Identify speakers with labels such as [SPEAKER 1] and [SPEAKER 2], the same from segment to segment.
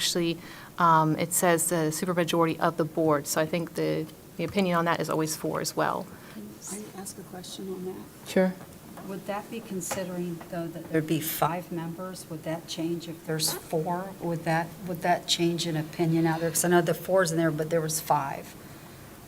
[SPEAKER 1] actually, um, it says the supermajority of the board, so I think the, the opinion on that is always four as well.
[SPEAKER 2] Can I ask a question on that?
[SPEAKER 3] Sure.
[SPEAKER 2] Would that be considering, though, that there'd be five members? Would that change if there's four? Would that, would that change an opinion out there? Because I know the four's in there, but there was five.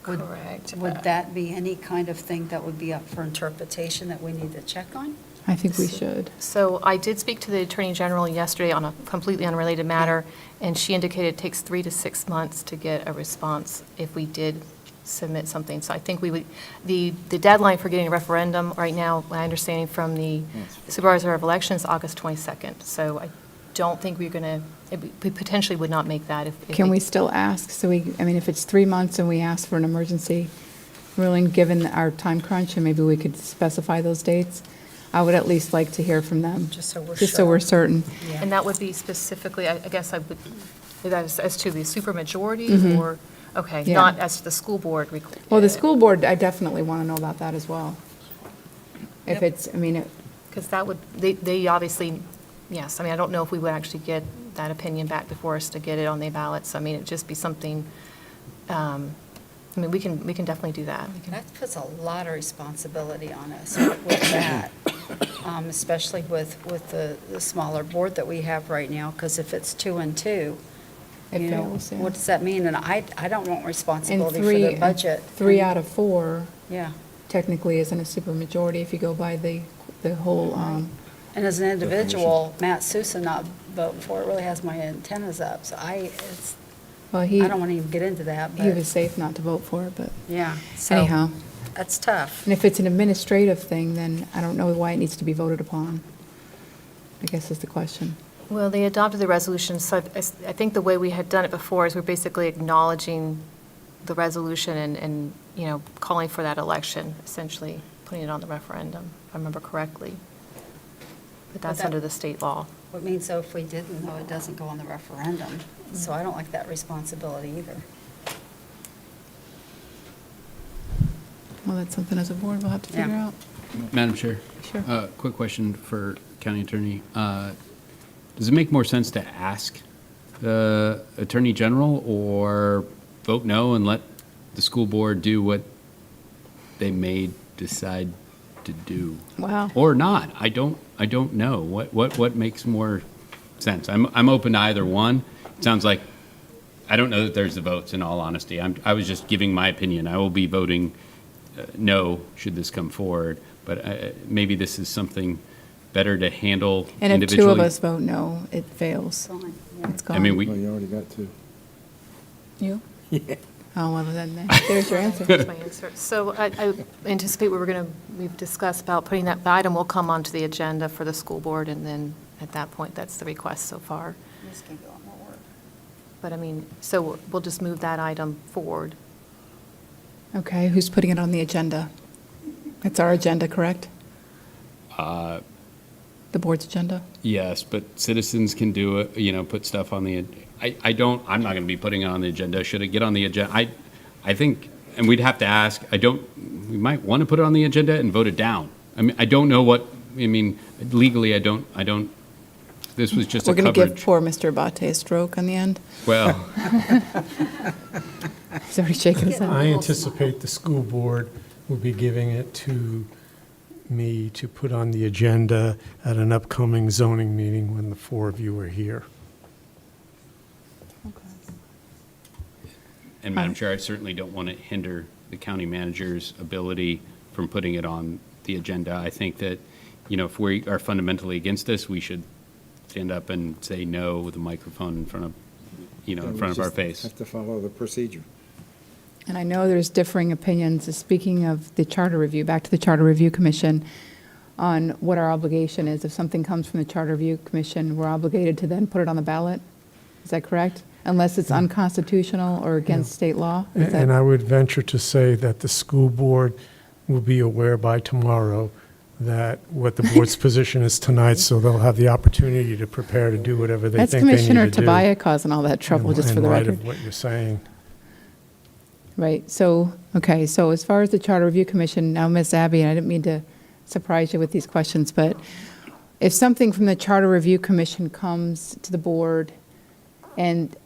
[SPEAKER 2] Would-
[SPEAKER 4] Correct.
[SPEAKER 2] Would that be any kind of thing that would be up for interpretation that we need to check on?
[SPEAKER 3] I think we should.
[SPEAKER 1] So I did speak to the Attorney General yesterday on a completely unrelated matter, and she indicated it takes three to six months to get a response if we did submit something. So I think we would, the, the deadline for getting a referendum right now, my understanding from the Supervisor of Elections, August 22nd. So I don't think we're going to, we potentially would not make that if. if
[SPEAKER 3] Can we still ask? So we, I mean, if it's three months and we ask for an emergency ruling, given our time crunch, and maybe we could specify those dates, I would at least like to hear from them.
[SPEAKER 2] Just so we're
[SPEAKER 3] Just so we're certain.
[SPEAKER 1] And that would be specifically, I I guess I would, that is as to the supermajority or, okay,
[SPEAKER 3] Mm-hmm. Yeah.
[SPEAKER 1] not as to the school board. requ-
[SPEAKER 3] Well, the school board, I definitely want to know about that as well. If it's, I mean, it-
[SPEAKER 1] Because that would, they, they obviously, yes, I mean, I don't know if we would actually get that opinion back before us to get it on the ballot, so I mean, it'd just be something, um, I mean, we can, we can definitely do that. We can-
[SPEAKER 2] That puts a lot of responsibility on us with that, um, especially with, with the the smaller board that we have right now, because if it's two and two,
[SPEAKER 3] It
[SPEAKER 2] you know,
[SPEAKER 3] fails, yeah.
[SPEAKER 2] what does that mean? And I, I don't want
[SPEAKER 3] and
[SPEAKER 2] responsibility for
[SPEAKER 3] three,
[SPEAKER 2] the budget.
[SPEAKER 3] three out of four
[SPEAKER 2] Yeah.
[SPEAKER 3] technically isn't a supermajority if you go by the, the whole, um,
[SPEAKER 2] And as an individual, Matt Sousa not voting for it really has my antennas up, so I, it's,
[SPEAKER 3] well,
[SPEAKER 2] I
[SPEAKER 3] he,
[SPEAKER 2] don't want to even get into that,
[SPEAKER 3] he was
[SPEAKER 2] but,
[SPEAKER 3] safe not to vote for it, but
[SPEAKER 2] yeah. so
[SPEAKER 3] anyhow.
[SPEAKER 2] That's tough.
[SPEAKER 3] And if it's an administrative thing, then I don't know why it needs to be voted upon, I guess is the question.
[SPEAKER 1] Well, they adopted the resolution, so I I s- I think the way we had done it before is we're basically acknowledging the resolution and, and, you know, calling for that election, essentially, putting it on the referendum, if I remember correctly. But that's
[SPEAKER 2] that-
[SPEAKER 1] under the state law.
[SPEAKER 2] It means though if we didn't, though, it doesn't go on the referendum, so I don't like that responsibility either.
[SPEAKER 3] Well, that's something as a board we'll have to
[SPEAKER 2] Yeah.
[SPEAKER 3] figure out.
[SPEAKER 5] Madam Chair.
[SPEAKER 3] Sure.
[SPEAKER 5] Uh, Quick question for County Attorney. Uh, Does it make more sense to ask the Attorney General or vote no and let the school board do what they may decide to do?
[SPEAKER 3] Wow.
[SPEAKER 5] Or not? I don't, I don't know. What, what, what makes more sense? I'm, I'm open to either one. It Sounds like, I don't know that there's the votes, in all honesty. I'm, I was just giving my opinion. I will be voting uh, no should this come forward, but uh, maybe this is something better to handle
[SPEAKER 3] And if
[SPEAKER 5] individually.
[SPEAKER 3] two of us vote no, it fails.
[SPEAKER 2] Fine, yeah.
[SPEAKER 3] It's gone.
[SPEAKER 5] I mean,
[SPEAKER 6] Well,
[SPEAKER 5] we,
[SPEAKER 6] you already got two.
[SPEAKER 3] You? Oh, well, then, there- there's your answer.
[SPEAKER 1] That's my answer. So I I anticipate we were going to, we've discussed about putting that, the item will come onto the agenda for the school board, and then at that point, that's the request so far.
[SPEAKER 2] This could be a lot more work.
[SPEAKER 1] But I mean, so we'll just move that item forward.
[SPEAKER 3] Okay, who's putting it on the agenda? It's our agenda, correct?
[SPEAKER 5] Uh,
[SPEAKER 3] The board's agenda?
[SPEAKER 5] yes, but citizens can do it, you know, put stuff on the, I, I don't, I'm not going to be putting it on the agenda. Should it get on the agenda? I, I think, and we'd have to ask, I don't, we might want to put it on the agenda and vote it down. I mean, I don't know what, I mean, legally, I don't, I don't, this was just
[SPEAKER 3] We're
[SPEAKER 5] a
[SPEAKER 3] going to give
[SPEAKER 5] coverage.
[SPEAKER 3] poor Mr. Abate a stroke on the end.
[SPEAKER 5] Well,
[SPEAKER 3] He's already shaking his head.
[SPEAKER 7] I anticipate the school board will be giving it to me to put on the agenda at an upcoming zoning meeting when the four of you are here.
[SPEAKER 5] And Madam Chair, I certainly don't want to hinder the county manager's ability from putting it on the agenda. I think that, you know, if we are fundamentally against this, we should stand up and say no with a microphone in front of, you know, in front of our face.
[SPEAKER 6] Have to follow the procedure.
[SPEAKER 3] And I know there's differing opinions, speaking of the Charter Review, back to the Charter Review Commission, on what our obligation is. If something comes from the Charter Review Commission, we're obligated to then put it on the ballot? Is that correct? Unless it's unconstitutional or against state law? Is
[SPEAKER 7] And
[SPEAKER 3] that-
[SPEAKER 7] and I would venture to say that the school board will be aware by tomorrow that what the board's position is tonight, so they'll have the opportunity to prepare to do whatever they think
[SPEAKER 3] That's
[SPEAKER 7] they need to do.
[SPEAKER 3] Commissioner Tobias causing all that trouble,
[SPEAKER 7] in-
[SPEAKER 3] just for the
[SPEAKER 7] In
[SPEAKER 3] record.
[SPEAKER 7] light of what you're saying.
[SPEAKER 3] Right, so, okay, so as far as the Charter Review Commission, now, Ms. Abby, and I didn't mean to surprise you with these questions, but if something from the Charter Review Commission comes to the board And